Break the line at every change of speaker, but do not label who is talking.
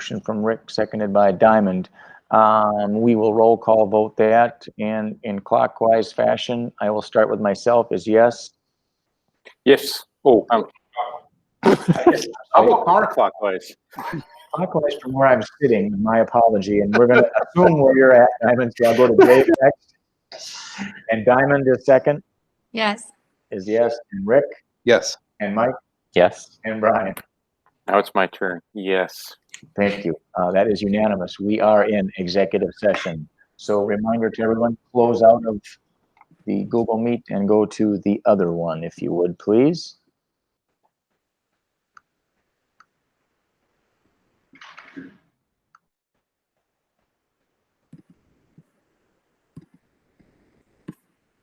Motion from Rick, seconded by Diamond. Um, we will roll call vote that and in clockwise fashion. I will start with myself as yes.
Yes. Oh, um, I'll go counterclockwise.
Clockwise from where I'm sitting, my apology, and we're gonna assume where you're at, Diamond, so I'll go to Dave next. And Diamond is second,
Yes.
is yes, and Rick
Yes.
and Mike
Yes.
and Brian.
Now it's my turn. Yes.
Thank you. Uh, that is unanimous. We are in executive session. So reminder to everyone, close out of the Google Meet and go to the other one, if you would, please.